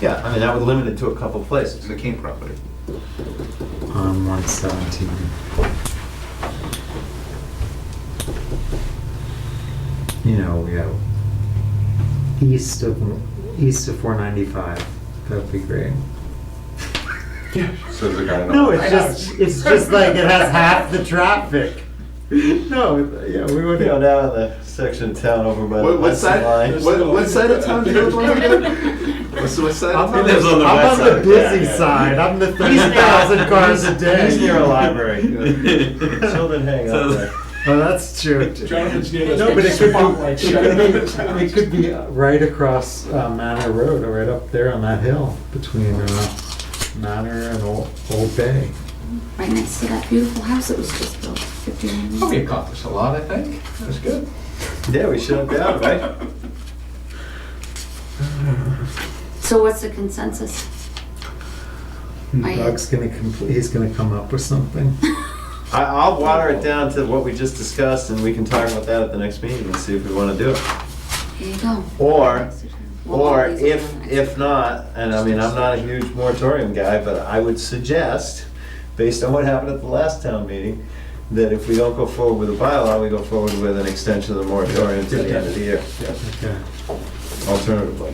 Yeah, I mean, that would limit it to a couple places. It's the King property. on Um, one seventeen. You know, we have east of east of four ninety five. That'd be great. So the guy. No, it's just it's just like it has half the traffic. No, yeah, we would. You know, down in the section of town over by the What, what west side, line. what, what side of town do you live on again? What's the west side of I'm town? on the, I'm west on the side. busy Yeah, yeah. side. I'm the thirty He's- thousand cars a day. He's near a library. Children Children hang out there. Oh, that's true. Jonathan's near No, but it could spotlight. be, it could be, it could be right across uh, Manor Road, or right up there on that hill between uh, Manor and Old, Old Bay. right next to that beautiful house that was just built 15 minutes ago. Oh, We accomplished a lot, I think. That was good. Yeah, we shut it down, right? So what's the consensus? I- Doug's gonna complete, he's gonna come up with something. I, I'll water it down to what we just discussed and we can talk about that at the next meeting and see if we wanna do it. Here you go. Or, We'll or all these if, are nice. if not, and I mean, I'm not a huge moratorium guy, but I would suggest, based on what happened at the last town meeting, that if we don't go forward with a bylaw, we go forward with an extension of the moratorium to the end of the year, Okay. alternatively.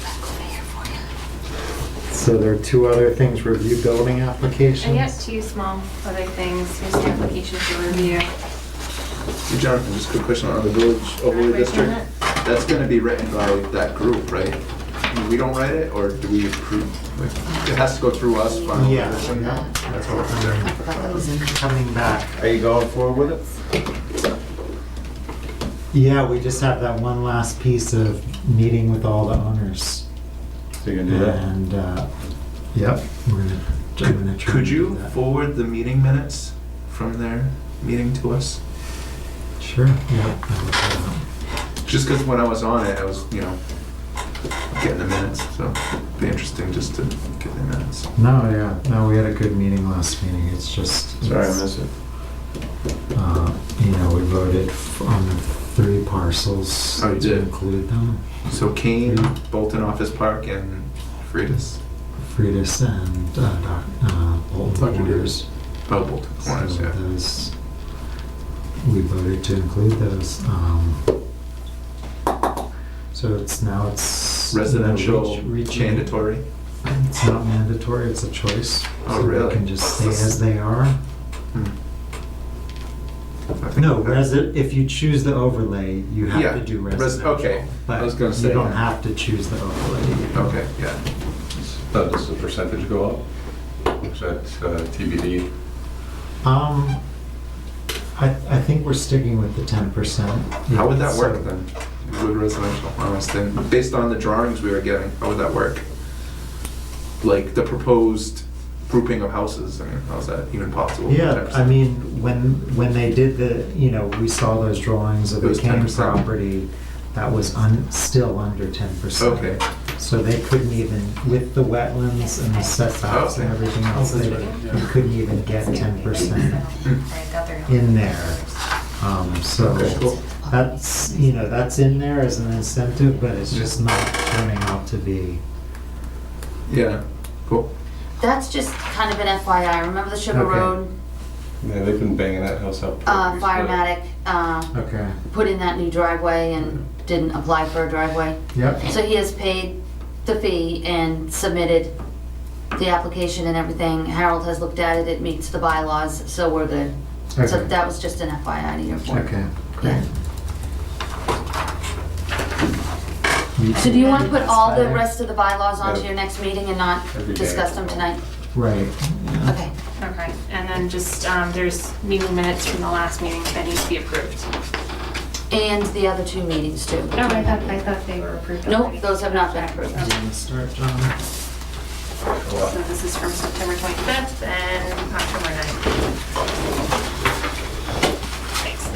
Back over here for you. So there are two other things, review building And applications? yet, two small other things, here's the application for review. Hey, Jonathan, just a quick question on the village overlay Quick district. comment. That's gonna be written by that group, right? We don't write it, or do we approve? It has to go through us, final Yeah. decision now? That's what we're I doing. thought that was in coming back. Are you going forward with it? Yeah, we just have that one last piece of meeting with all the owners. So you're gonna do that? And, uh, yep, we're gonna, I'm gonna try Could and do you that. forward the meeting minutes from their meeting to us? Sure, yeah. I'll look that up. Just because when I was on it, I was, you know, getting the minutes, so it'd be interesting just to get the minutes. No, yeah, no, we had a good meeting last meeting, it's just. Sorry, I it's, missed it. uh, You know, we voted f- on the three parcels. Oh, you to did? Include them, So Kane, Mm-hmm. Bolton Office Park, and Freitas. Freitas and, uh, Doc, uh, Bolton Dr. Corners. Oh, Bolton Corners, So uh, yeah. those, we voted to include those, um. So it's now it's. you know, Residential, reach- reaching- mandatory. It's not mandatory, it's a choice. Oh, So they really? can just stay as they are. Hmm. I think No, that- resi, if you choose the overlay, you Yeah, have to do res- residential. okay, I was gonna but say You don't that. have to choose the overlay. Okay, yeah. Uh, Does the percentage go up? Is that uh, TBD? Um, I, I think we're sticking with the ten percent. How would that work then? Would residential, honest, and based on the drawings we were getting, how would that work? Like the proposed grouping of houses, I mean, how's that even possible? Yeah, I mean, when, when they did the, you know, we saw those drawings of It the was Kane 10%. property, that was un, still under ten percent. Okay, So they couldn't even, with the wetlands and the setbacks and Okay. everything else, that's they, right, yeah. you couldn't even get ten percent in there. Um, so Okay, cool. that's, you know, that's in there as an incentive, but it's just not turning out to be. yeah, cool. That's just kind of an FYI. Remember the Sugar Okay. Road Yeah, they've been banging that house up. for uh, years, but- firematic uh, Okay. put in that new driveway and didn't apply for a driveway. Yep. So he has paid the fee and submitted the application and everything. Harold has looked at it. It meets the bylaws, so we're good. So Okay. that was just an FYI to your point. Okay, great. So do you want to put all the rest of the bylaws onto Yeah. your next meeting and not Every day. discuss them tonight? Right. Okay. Okay, and then just, um, there's meeting minutes from the last meeting that need to be approved. And the other two meetings too. No, Oh, I thought, I thought they were approved Nope, already. those have not been approved. Do you Okay. wanna start, John? So this is from September 25th and October 9th. Thanks.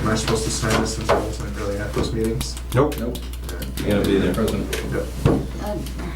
Am I supposed to sign this since I wasn't really at those meetings? Nope. Nope. You gotta be there. Present. Yep. Uh,